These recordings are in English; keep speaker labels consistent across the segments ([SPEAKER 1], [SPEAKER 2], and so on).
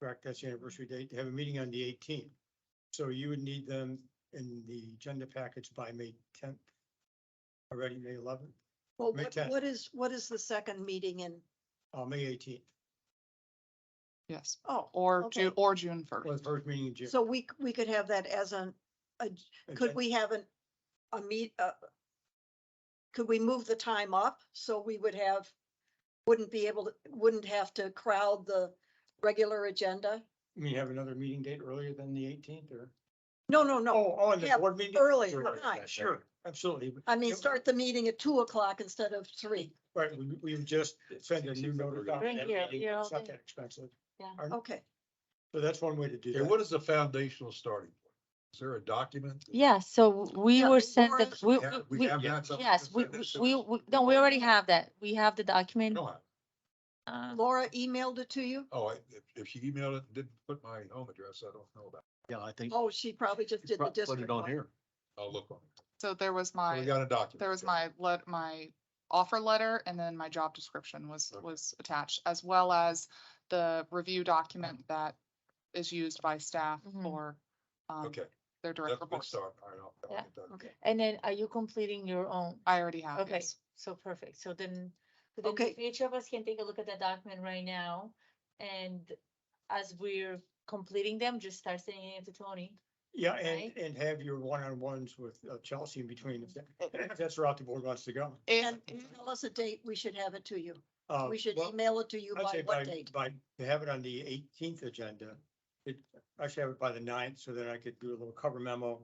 [SPEAKER 1] correct, that's the anniversary date, to have a meeting on the eighteenth. So you would need them in the agenda package by May tenth, already May eleventh,
[SPEAKER 2] Well,
[SPEAKER 1] May
[SPEAKER 2] what-
[SPEAKER 1] 10th.
[SPEAKER 2] what is, what is the second meeting in?
[SPEAKER 1] uh, May eighteenth,
[SPEAKER 3] Yes,
[SPEAKER 2] Oh,
[SPEAKER 3] or
[SPEAKER 2] Okay.
[SPEAKER 3] Ju- or June
[SPEAKER 1] or
[SPEAKER 3] first.
[SPEAKER 1] the first meeting in June.
[SPEAKER 2] so we, c- we could have that as an, a- could
[SPEAKER 1] Agenda-
[SPEAKER 2] we have an, a meet, uh, could we move the time up so we would have, wouldn't be able to, wouldn't have to crowd the regular agenda?
[SPEAKER 1] You mean have another meeting date earlier than the eighteenth or?
[SPEAKER 2] No, no, no.
[SPEAKER 1] Oh, oh, and the
[SPEAKER 2] yeah,
[SPEAKER 1] board meeting?
[SPEAKER 2] early,
[SPEAKER 1] Sure,
[SPEAKER 2] right.
[SPEAKER 1] Sure, absolutely.
[SPEAKER 2] I mean,
[SPEAKER 1] Yep.
[SPEAKER 2] start the meeting at two o'clock instead of three.
[SPEAKER 1] Right, we, we would just send a new notice out.
[SPEAKER 4] Thank
[SPEAKER 1] and
[SPEAKER 4] you,
[SPEAKER 1] everything.
[SPEAKER 4] yeah,
[SPEAKER 1] It's not
[SPEAKER 4] okay.
[SPEAKER 1] that expensive.
[SPEAKER 4] Yeah.
[SPEAKER 1] Our-
[SPEAKER 2] Okay.
[SPEAKER 1] So that's one way to do
[SPEAKER 5] Okay,
[SPEAKER 1] that.
[SPEAKER 5] what is the foundational starting point? Is there a document?
[SPEAKER 4] Yeah, so we
[SPEAKER 2] Yeah,
[SPEAKER 4] were
[SPEAKER 2] the
[SPEAKER 4] sent
[SPEAKER 2] warrant-
[SPEAKER 4] that, we,
[SPEAKER 5] Yeah,
[SPEAKER 4] we,
[SPEAKER 5] We
[SPEAKER 4] we-
[SPEAKER 5] have that. something
[SPEAKER 4] yes, we,
[SPEAKER 5] that's in
[SPEAKER 4] we,
[SPEAKER 5] there?
[SPEAKER 4] we- no, we already have that. We have the document.
[SPEAKER 5] No, I-
[SPEAKER 4] uh,
[SPEAKER 2] Laura emailed it to you?
[SPEAKER 5] Oh, I- if, if she emailed it, and didn't put my home address, I don't know about.
[SPEAKER 6] Yeah, I think.
[SPEAKER 2] Oh, she probably just did the
[SPEAKER 6] Put
[SPEAKER 2] district.
[SPEAKER 6] it on
[SPEAKER 2] one.
[SPEAKER 6] here.
[SPEAKER 5] it. I'll look on it.
[SPEAKER 3] So there was
[SPEAKER 5] So We
[SPEAKER 3] my,
[SPEAKER 5] got a document.
[SPEAKER 3] there was my let, my offer letter and then my job description was,
[SPEAKER 5] Okay.
[SPEAKER 3] was attached as well as the review document that is used by staff
[SPEAKER 4] Mhm.
[SPEAKER 3] for um,
[SPEAKER 5] Okay,
[SPEAKER 3] their direct
[SPEAKER 5] that's a good
[SPEAKER 3] reports.
[SPEAKER 5] start. All right, I'll- I'll
[SPEAKER 4] Yeah.
[SPEAKER 5] get that.
[SPEAKER 2] Okay.
[SPEAKER 4] And then are you completing your own?
[SPEAKER 3] I already have.
[SPEAKER 4] Okay,
[SPEAKER 3] yes.
[SPEAKER 4] so perfect. So then, so
[SPEAKER 2] Okay.
[SPEAKER 4] then each of us can take a look at that document right now. And as we're completing them, just start sending it to Tony.
[SPEAKER 1] Yeah, and,
[SPEAKER 4] right?
[SPEAKER 1] and have your one-on-ones with uh, Chelsea in between if that-
[SPEAKER 2] Oh.
[SPEAKER 1] if that's the route the board wants to go.
[SPEAKER 3] If,
[SPEAKER 2] And tell us a date, we should have it to you.
[SPEAKER 1] Uh,
[SPEAKER 2] We should
[SPEAKER 1] well,
[SPEAKER 2] email it to you
[SPEAKER 1] I'd say
[SPEAKER 2] by
[SPEAKER 1] by,
[SPEAKER 2] what date?
[SPEAKER 1] by, to have it on the eighteenth agenda. It, I should have it by the 9th so that I could do a little cover memo.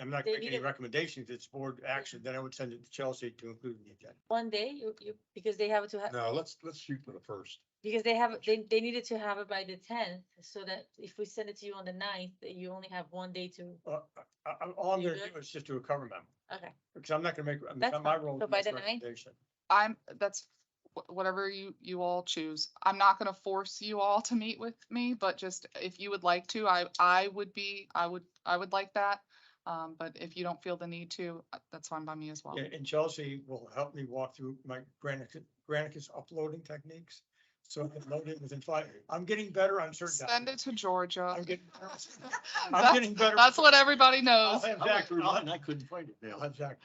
[SPEAKER 1] I'm not
[SPEAKER 4] They
[SPEAKER 1] making any
[SPEAKER 4] need it-
[SPEAKER 1] recommendations. It's board action. Then I would send it to Chelsea to include in the agenda.
[SPEAKER 4] One day, you, you, because they have it to have,
[SPEAKER 5] No, let's, let's shoot for the first.
[SPEAKER 4] because they have, they, they needed to have it by the tenth. So that if we send it to you on the ninth, you only have one day to,
[SPEAKER 1] Uh, I, I, all I'm
[SPEAKER 4] You
[SPEAKER 1] gonna
[SPEAKER 4] good?
[SPEAKER 1] do is just do a cover memo.
[SPEAKER 4] okay.
[SPEAKER 1] Because I'm not gonna make, I mean, it's
[SPEAKER 4] That's
[SPEAKER 1] not my
[SPEAKER 4] fine.
[SPEAKER 1] role.
[SPEAKER 4] So
[SPEAKER 1] to
[SPEAKER 4] by
[SPEAKER 1] make
[SPEAKER 4] the ninth?
[SPEAKER 1] recommendation.
[SPEAKER 3] I'm, that's wh- whatever you, you all choose. I'm not gonna force you all to meet with me, but just if you would like to, I, I would be, I would, I would like that. Um, but if you don't feel the need to, uh, that's fine by me as well.
[SPEAKER 1] Yeah, And Chelsea will help me walk through my Granicus, Granicus uploading techniques. So I can load it within five, I'm getting better on certain.
[SPEAKER 3] Send it to Georgia.
[SPEAKER 1] I'm getting better. I'm
[SPEAKER 3] That's
[SPEAKER 1] getting better.
[SPEAKER 3] that's what everybody
[SPEAKER 1] I'll
[SPEAKER 3] knows.
[SPEAKER 1] have
[SPEAKER 6] I went
[SPEAKER 1] Zach,
[SPEAKER 6] through
[SPEAKER 1] I'll
[SPEAKER 6] mine,
[SPEAKER 1] have-
[SPEAKER 6] I couldn't find it
[SPEAKER 1] I'll
[SPEAKER 6] now.
[SPEAKER 1] have Zach,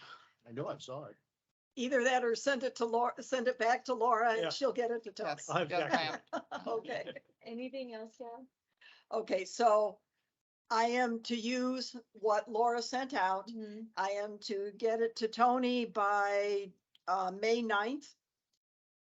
[SPEAKER 6] I know I saw it.
[SPEAKER 2] Either that or send it to Laura, send it back to Laura
[SPEAKER 1] Yeah.
[SPEAKER 2] and she'll get it to Tony.
[SPEAKER 3] Yes,
[SPEAKER 1] I'll have
[SPEAKER 3] yes, ma'am.
[SPEAKER 1] Zach.
[SPEAKER 2] Okay,
[SPEAKER 4] Anything else, yeah?
[SPEAKER 2] okay, so I am to use what Laura sent out.
[SPEAKER 4] Mm-hmm.
[SPEAKER 2] I am to get it to Tony by uh, May 9th.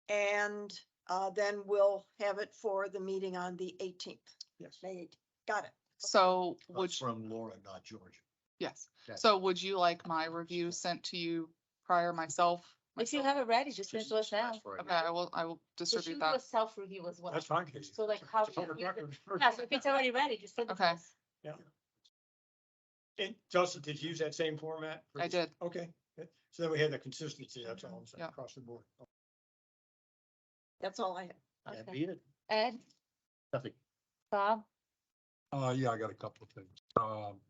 [SPEAKER 2] And uh, then we'll have it for the meeting on the eighteenth,
[SPEAKER 1] Yes.
[SPEAKER 2] May 18th. Got it.
[SPEAKER 3] So
[SPEAKER 6] That's
[SPEAKER 3] would, you-
[SPEAKER 6] From Laura, not George.
[SPEAKER 3] yes.
[SPEAKER 6] Okay.
[SPEAKER 3] So would you like my review sent to you prior myself?
[SPEAKER 4] If you
[SPEAKER 3] myself?
[SPEAKER 4] have it ready, just send it to us now.
[SPEAKER 6] That's right.
[SPEAKER 3] Okay, I will, I will
[SPEAKER 4] So she
[SPEAKER 3] distribute
[SPEAKER 4] do a
[SPEAKER 3] that.
[SPEAKER 4] self-review as well.
[SPEAKER 1] That's fine, Casey.
[SPEAKER 4] So like how
[SPEAKER 1] It's
[SPEAKER 4] should
[SPEAKER 1] over
[SPEAKER 4] we-
[SPEAKER 1] record.
[SPEAKER 4] Yeah, so if it's already ready, just send it to
[SPEAKER 3] Okay.
[SPEAKER 4] us.
[SPEAKER 1] And Chelsea, did you use that same format?
[SPEAKER 3] I did.
[SPEAKER 1] Okay, so then we had the consistency, that's all, I'm saying,
[SPEAKER 3] Yeah.
[SPEAKER 1] across the board.
[SPEAKER 2] That's all I have.
[SPEAKER 6] That'd
[SPEAKER 4] Okay.
[SPEAKER 6] be it.
[SPEAKER 4] Ed,
[SPEAKER 6] Nothing.
[SPEAKER 4] Bob,
[SPEAKER 5] Uh, yeah, I got a couple of things. Um.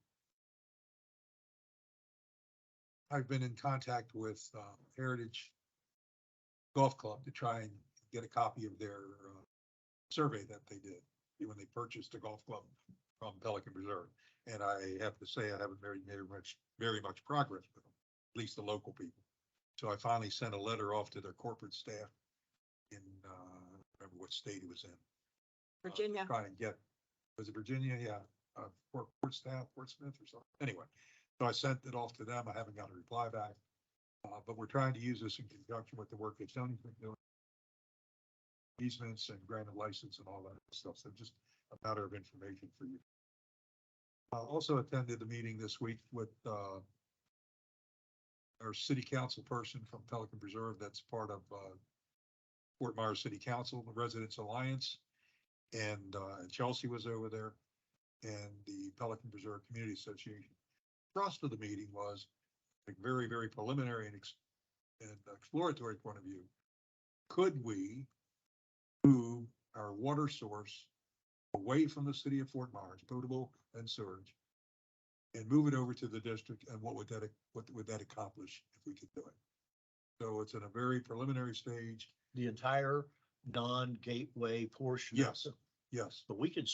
[SPEAKER 5] I've been in contact with, uh, Heritage Golf Club to try and get a copy of their, uh, survey that they did when they purchased the golf club from Pelican Reserve. And I have to say, I haven't very, very much, very much progress with them, at least the local people. So I finally sent a letter off to their corporate staff in, uh, I don't remember what state it was in uh,
[SPEAKER 2] Virginia.
[SPEAKER 5] Trying to get, was it Virginia? Yeah, uh, Port, Portsmouth, Portsmouth or something. Anyway, so I sent it off to them. I haven't got a reply back. Uh, but we're trying to use this in conjunction with the work that Tony's been doing. Easements and granted license and all that stuff. So just a matter of information for you. I also attended a meeting this week with, uh, our city council person from Pelican Preserve that's part of, uh, Fort Myers City Council, the Residents Alliance. And uh, Chelsea was over there and the Pelican Preserve Community Association. Thrust of the meeting was a very, very preliminary and ex- and exploratory point of view. Could we move our water source away from the city of Fort Myers, potable and surge? And move it over to the district and what would that, what would that accomplish if we could do it? So it's in a very preliminary stage.
[SPEAKER 6] The entire non-gateway portion. of
[SPEAKER 5] Yes.
[SPEAKER 6] it.
[SPEAKER 5] Yes,
[SPEAKER 6] But we can